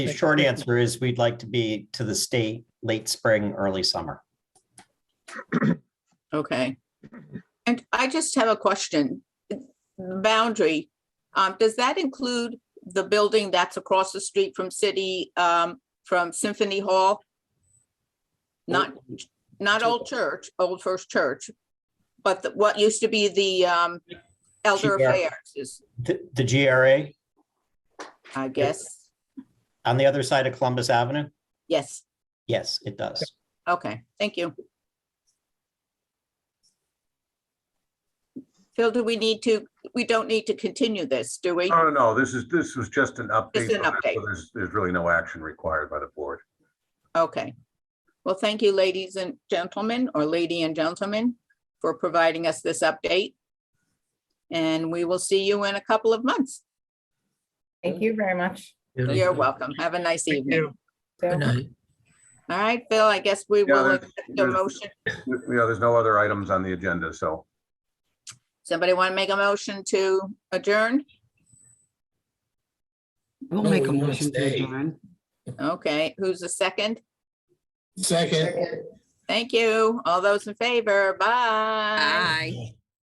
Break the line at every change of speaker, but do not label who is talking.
The short answer is we'd like to be to the state late spring, early summer.
Okay. And I just have a question. Boundary, um, does that include the building that's across the street from city, um, from Symphony Hall? Not, not Old Church, Old First Church, but the- what used to be the, um, Elder
Yeah.
Affairs is,
The, the GRA
I guess.
on the other side of Columbus Avenue?
Yes,
Yes, it does.
okay, thank you. Phil, do we need to, we don't need to continue this, do we?
No, no, no, this is, this was just an update.
Just an
so
update.
There's, there's really no action required by the board.
Okay. Well, thank you, ladies and gentlemen, or lady and gentlemen, for providing us this update. And we will see you in a couple of months.
Thank you very much.
You're welcome. Have a nice evening.
So-
Good night.
All right, Phil, I guess we
Yeah,
will
there's-
accept the
there's-
motion.
You know, there's no other items on the agenda, so
Somebody want to make a motion to adjourn?
We'll
No,
make a
we wanna
motion to
stay.
adjourn.
Okay, who's the second?
Second.
Thank you. All those in favor, bye.
Bye.